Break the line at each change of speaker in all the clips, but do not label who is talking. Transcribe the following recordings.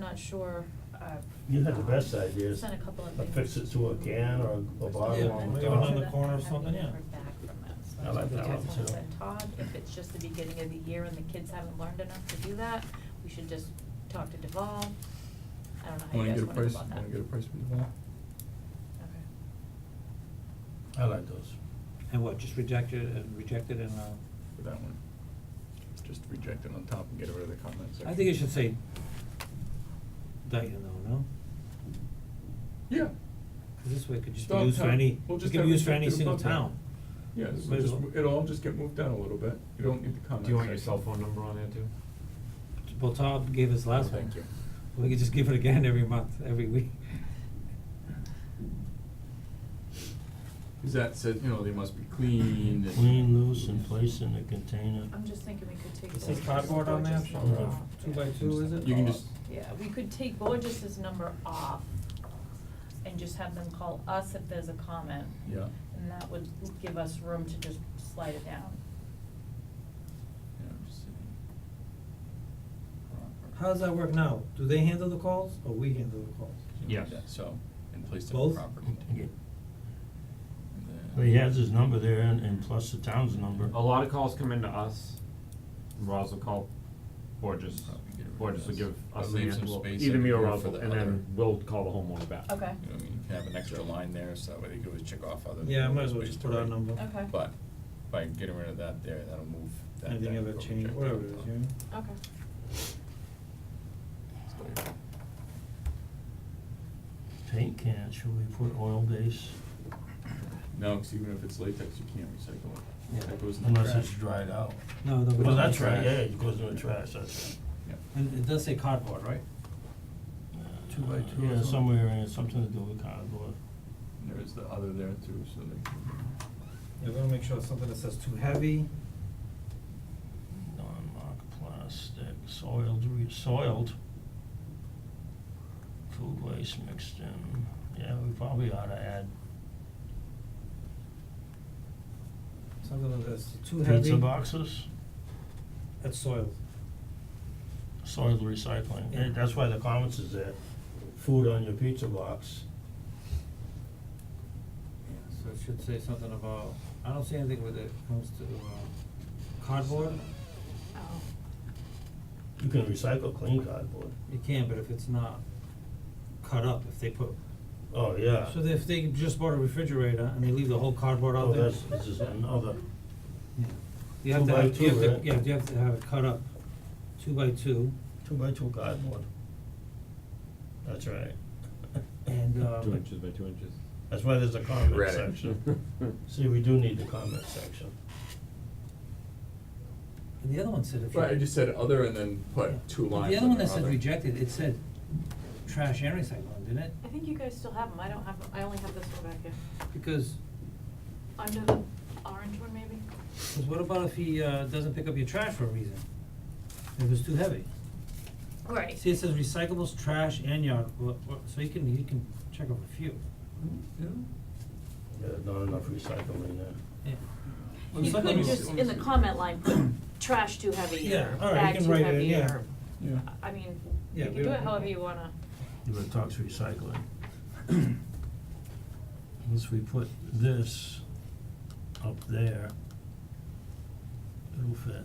not sure, uh.
You had the best ideas.
Sent a couple of
A
things.
fix it to a can or a- a bottle
Yeah,
on the
maybe
top.
another corner or something, yeah.
I haven't heard back from them, so
I like that
just
one
wanna
too.
let Todd, if it's just the beginning of the year and the kids haven't learned enough to do that, we should just talk to Deval. I don't know how you
Wanna
guys
get a
wanna go
price,
about that.
wanna get a price from the wall?
I like those.
And what, just reject it and reject it and, uh,
For that one. Just reject it on top and get rid of the comment section.
I think it should say Dayton though, no?
Yeah.
Cause this way it could just be
Dog
used for
town.
any,
We'll
it
just
could
have
be used for any
rejected
single
above that.
town.
Yeah, this
Might
will
as
just,
well.
mo- it'll all just get moved down a little bit, you don't need the comment
Do you want your
section.
cell phone number on there too?
Well, Todd gave us last one.
Thank you.
We could just give it again every month, every week.
Cause that said, you know, they must be clean and.
Clean, loose, and place in a container.
I'm just thinking we could take.
It says
Borges's-
cardboard on there,
Borges's
from
number
the
off,
two
yeah.
by two, is it?
You can just,
Yeah, we could take Borges's number off and just have them call us if there's a comment.
yeah,
And that would give us room to just slide it down.
yeah, I'm just saying. Proper.
How does that work now? Do they handle the calls or we handle the calls?
Yes.
Yeah, So, and placed in a
Both?
proper
Yeah.
container. And
Well,
then-
He has his number there and, and plus the town's number.
A lot of calls come into us, Roz will call Borges,
Probably get rid of
Borges will
this.
give
But
us the
leave
answer,
some
Well,
space
either
in
me or
here
Roz,
for
will,
the
and
other.
then we'll call the homeowner back.
Okay,
You know, what I mean, you can have an extra line there, so that way they could always check off other.
Yeah, I might as well
ways
just
to
put our
rate.
number.
okay.
But by getting rid of that there, that'll move that.
Anything
that
ever
go
change,
check
whatever
that
it is,
out.
you know?
Okay.
So,
Paint can, should we put oil base?
No, 'cause even if it's latex, you can't recycle it.
Yeah.
That goes in the trash.
Unless it's dried out.
No, no, we
Well,
don't
that's
need
right,
that.
yeah, it goes in the trash, that's
Yeah.
And it does say cardboard, right?
right.
Two by two or
Yeah,
something.
somewhere in, it, something to do with cardboard.
And There is the other there too, so they can.
Yeah, we wanna make sure it's something that says too heavy.
Non-marked plastic, soiled, re- soiled. Food waste mixed in, yeah, we probably ought to add
Something that's too heavy.
pizza boxes,
That's soiled.
soiled recycling,
Yeah.
Eh, that's why the comments is there, food on your pizza box.
So it should say something about, I don't see anything with it comes to uh cardboard,
Oh,
You can recycle clean cardboard,
you can, but if it's not cut up, if they put.
oh, yeah.
So if they just bought a refrigerator and they leave the whole cardboard
Oh,
out there.
that's, this is another,
Yeah. You have
Two
to
by
have, you
two,
have to,
right?
yeah, you have to have it cut up, two by two,
two by two cardboard. That's right,
and um.
Two inches by two inches.
that's why there's a comment
Read it.
section, see, we do need the comment section.
And the other one said if you.
Right, I just said other and then
Yeah.
put two
But
lines
The other one
under
that said
other.
rejected, it said trash and recycling, didn't it?
I think you guys still have them, I don't have, I only have this one back here.
Because,
Under the orange one, maybe?
because what about if he uh doesn't pick up your trash for a reason? If it's too heavy?
Right.
See, it says recyclables, trash, and yard, wa- wa- so you can, you can check off a few.
Yeah.
Yeah, not enough recycling there.
Yeah.
You
Recyclables-
could just, in the comment line, put trash too heavy
Yeah,
or
all right, you
bag
can
too
write it in,
heavy
yeah.
or,
Yeah.
I mean, you
Yeah,
can
we
do it
don't-
however you wanna.
But it talks recycling. Once we put this up there, it'll fit.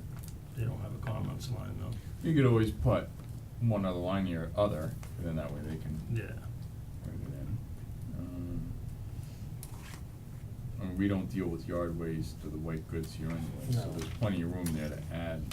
They don't have a comments line though.
You could always put one other line here, other, and then that way they can
Yeah.
write it in. Um, And we don't deal with yard waste or the white goods here anyway, so
No.
there's plenty of room there to add.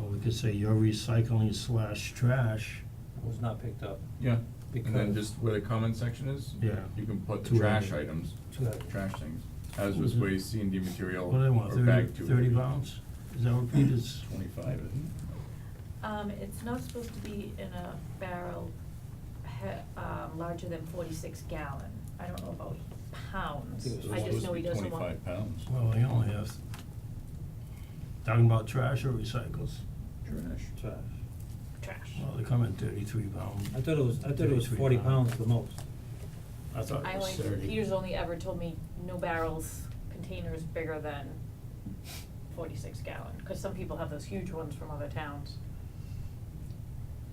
Or we could say your recycling slash trash,
Was not picked up,
Yeah. And then
Because-
just where the comment section is,
Yeah.
you can put the
Two
trash
hundred.
items,
too heavy.
trash things, hazardous
Was it-
waste, C and D material,
what do they want,
or
thirty,
bag two.
thirty pounds? Is that what Pete is?
Twenty-five, isn't
Um, it's not supposed to be in a barrel he- um, larger than forty-six gallon, I don't know about pounds,
I think it was
it?
I just know he doesn't want.
Twenty-five pounds,
Well, we only have, talking about trash or recycles?
trash.
Trash.
Trash.
Well, they come in thirty-three pound.
I thought it was, I thought it was
33
forty
pound.
pounds the most.
I thought
I
it was
only,
thirty.
Peter's only ever told me no barrels, containers bigger than forty-six gallon, cause some people have those huge ones from other towns.